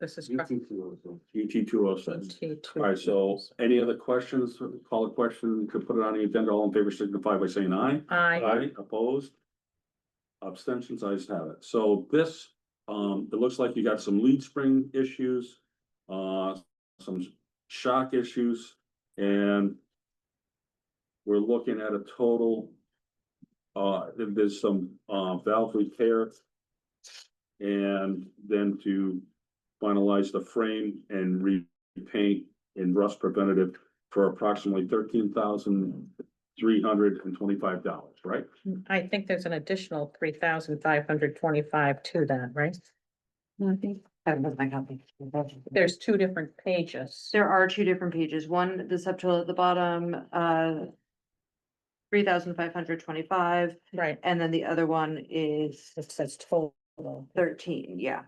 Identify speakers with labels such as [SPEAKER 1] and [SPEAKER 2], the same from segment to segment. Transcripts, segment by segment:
[SPEAKER 1] This is. correct.
[SPEAKER 2] UT two oh six.
[SPEAKER 1] T2.
[SPEAKER 2] All right, so any other questions, call a question, could put it on the agenda, all in favor signify by saying aye.
[SPEAKER 1] I,
[SPEAKER 2] Aye, opposed? Abstentions, I just have it. So this, um, it looks like you got some lead spring issues, uh, some shock issues, and we're looking at a total, uh, there's some, uh, valve repair. And then to finalize the frame and repaint in rust preventative for approximately thirteen thousand three hundred and twenty-five dollars, right?
[SPEAKER 1] I think there's an additional three thousand five hundred twenty-five to that, right?
[SPEAKER 3] No, I think, I don't know if I got the-
[SPEAKER 1] There's two different pages.
[SPEAKER 3] There are two different pages, one, the subtotal at the bottom, uh. Three thousand five hundred twenty-five,
[SPEAKER 1] Right,
[SPEAKER 3] and then the other one is
[SPEAKER 1] it says total.
[SPEAKER 3] thirteen, yeah.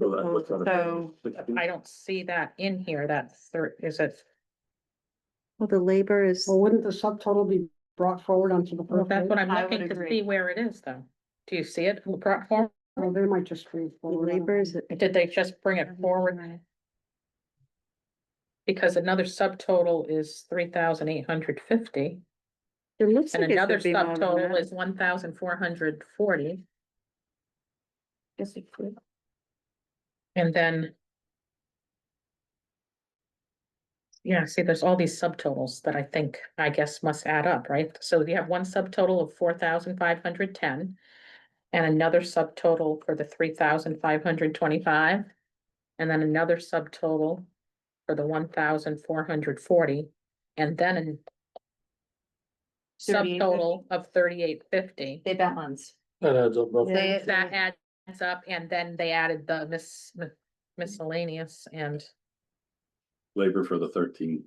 [SPEAKER 2] So that- what's that?
[SPEAKER 3] So,
[SPEAKER 1] I don't see that in here, that third, is it?
[SPEAKER 4] Well, the labor is,
[SPEAKER 5] Well, wouldn't the subtotal be brought forward onto the
[SPEAKER 1] Well,
[SPEAKER 5] first
[SPEAKER 1] that's
[SPEAKER 5] page?
[SPEAKER 1] what I'm
[SPEAKER 3] I would
[SPEAKER 1] looking to
[SPEAKER 3] agree.
[SPEAKER 1] see where it is though. Do you see it? Brought forward?
[SPEAKER 5] Well, they might just read
[SPEAKER 4] the
[SPEAKER 5] forward. I don't
[SPEAKER 4] labor is.
[SPEAKER 5] know.
[SPEAKER 1] Did they just bring it
[SPEAKER 4] Mm-hmm.
[SPEAKER 1] forward? Because another subtotal is three thousand eight hundred fifty.
[SPEAKER 4] It looks
[SPEAKER 1] And
[SPEAKER 4] like it
[SPEAKER 1] another
[SPEAKER 4] should be more than
[SPEAKER 1] subtotal
[SPEAKER 4] that.
[SPEAKER 1] is one thousand four hundred forty,
[SPEAKER 4] Yes, it could.
[SPEAKER 1] and then. Yeah, see, there's all these subtotals that I think, I guess, must add up, right? So you have one subtotal of four thousand five hundred ten. And another subtotal for the three thousand five hundred twenty-five. And then another subtotal for the one thousand four hundred forty, and then an subtotal of thirty-eight fifty.
[SPEAKER 3] they balance.
[SPEAKER 6] That adds up roughly.
[SPEAKER 4] Yeah.
[SPEAKER 1] They, that adds up, and then they added the mis- Mm-hmm. miscellaneous and,
[SPEAKER 2] Labor for the thirteen.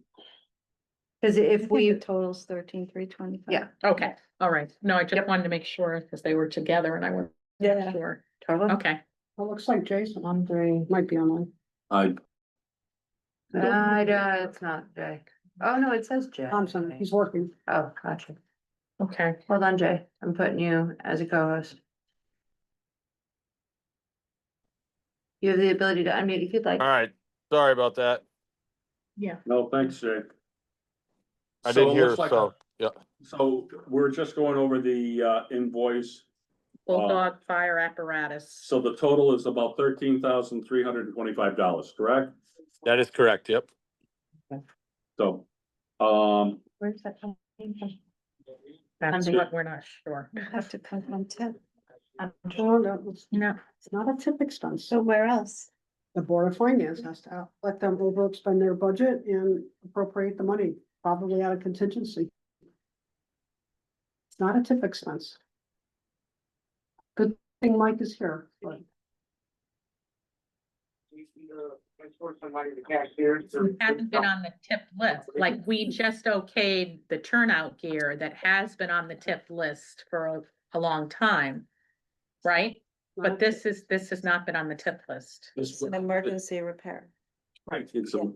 [SPEAKER 3] Cause if
[SPEAKER 4] We
[SPEAKER 3] we,
[SPEAKER 4] totals thirteen, three twenty-five.
[SPEAKER 3] Yeah.
[SPEAKER 1] okay, all right, no, I just wanted to make sure, because they were together and I wasn't
[SPEAKER 4] Yeah.
[SPEAKER 1] sure,
[SPEAKER 3] total,
[SPEAKER 1] okay.
[SPEAKER 5] Well, It looks like Jason Andre might be online.
[SPEAKER 2] I,
[SPEAKER 3] uh, uh, it's not Jay. Oh, no, it says Jay.
[SPEAKER 5] Thompson, he's working.
[SPEAKER 3] Oh, gotcha.
[SPEAKER 1] Okay,
[SPEAKER 3] Hold on, Jay, I'm putting you as a co-host. You have the ability to unmute if you'd like.
[SPEAKER 7] All right, sorry about that.
[SPEAKER 1] yeah.
[SPEAKER 2] no, thanks, Jay.
[SPEAKER 7] I
[SPEAKER 2] So it
[SPEAKER 7] didn't hear,
[SPEAKER 2] looks like-
[SPEAKER 7] so, yeah.
[SPEAKER 2] So we're just going over the uh invoice.
[SPEAKER 1] Bulldog fire apparatus,
[SPEAKER 2] So the total is about thirteen thousand three hundred and twenty-five dollars, correct?
[SPEAKER 7] that is correct, yep.
[SPEAKER 2] So, um,
[SPEAKER 4] Where's that coming from?
[SPEAKER 1] that's
[SPEAKER 3] Something-
[SPEAKER 1] what we're not sure.
[SPEAKER 4] It'd Have to come from tip.
[SPEAKER 3] I'm just-
[SPEAKER 5] Oh, no, It's
[SPEAKER 1] No,
[SPEAKER 5] it's not a tip expense.
[SPEAKER 4] So where else?
[SPEAKER 5] The Board of Finance has to out- let them overexpend their budget and appropriate the money, probably out of contingency. It's not a tip expense. Good thing Mike is here, but
[SPEAKER 1] it hasn't been on the tip list, like, we just okayed the turnout gear that has been on the tip list for a- a long time. Right, but this is, this has not been on the tip list.
[SPEAKER 4] It's an emergency repair.
[SPEAKER 2] right, it's a.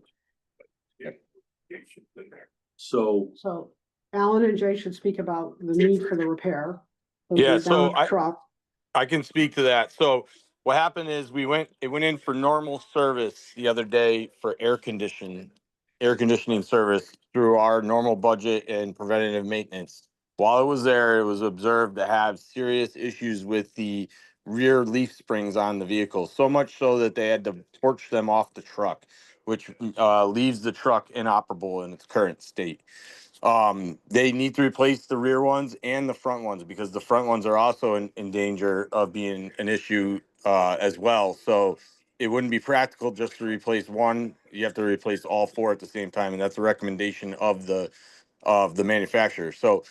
[SPEAKER 2] So,
[SPEAKER 5] So Alan and Jay should speak about the need for the repair. of the
[SPEAKER 7] Yeah, so
[SPEAKER 5] downed
[SPEAKER 7] I-
[SPEAKER 5] Truck,
[SPEAKER 7] I can speak to that. So what happened is we went, it went in for normal service the other day for air condition, air conditioning service through our normal budget and preventative maintenance. While it was there, it was observed to have serious issues with the rear leaf springs on the vehicle, so much so that they had to torch them off the truck, which uh, leaves the truck inoperable in its current state. Um, they need to replace the rear ones and the front ones because the front ones are also in, in danger of being an issue uh, as well. So it wouldn't be practical just to replace one. You have to replace all four at the same time, and that's a recommendation of the of the manufacturer. So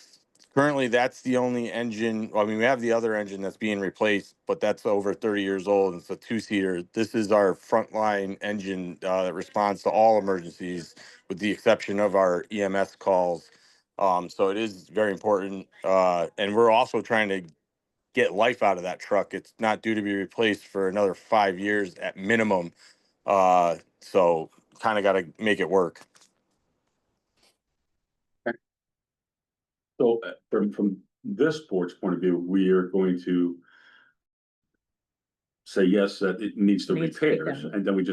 [SPEAKER 7] currently, that's the only engine. I mean, we have the other engine that's being replaced, but that's over 30 years old. It's a two seater. This is our frontline engine uh, that responds to all emergencies with the exception of our EMS calls. Um, so it is very important. Uh, and we're also trying to get life out of that truck. It's not due to be replaced for another five years at minimum. Uh, so kind of got to make it work.
[SPEAKER 2] so uh, from from this board's point of view, we are going to. Say yes, that it needs the
[SPEAKER 1] Needs to be
[SPEAKER 2] repairs,
[SPEAKER 1] done.
[SPEAKER 2] and then we just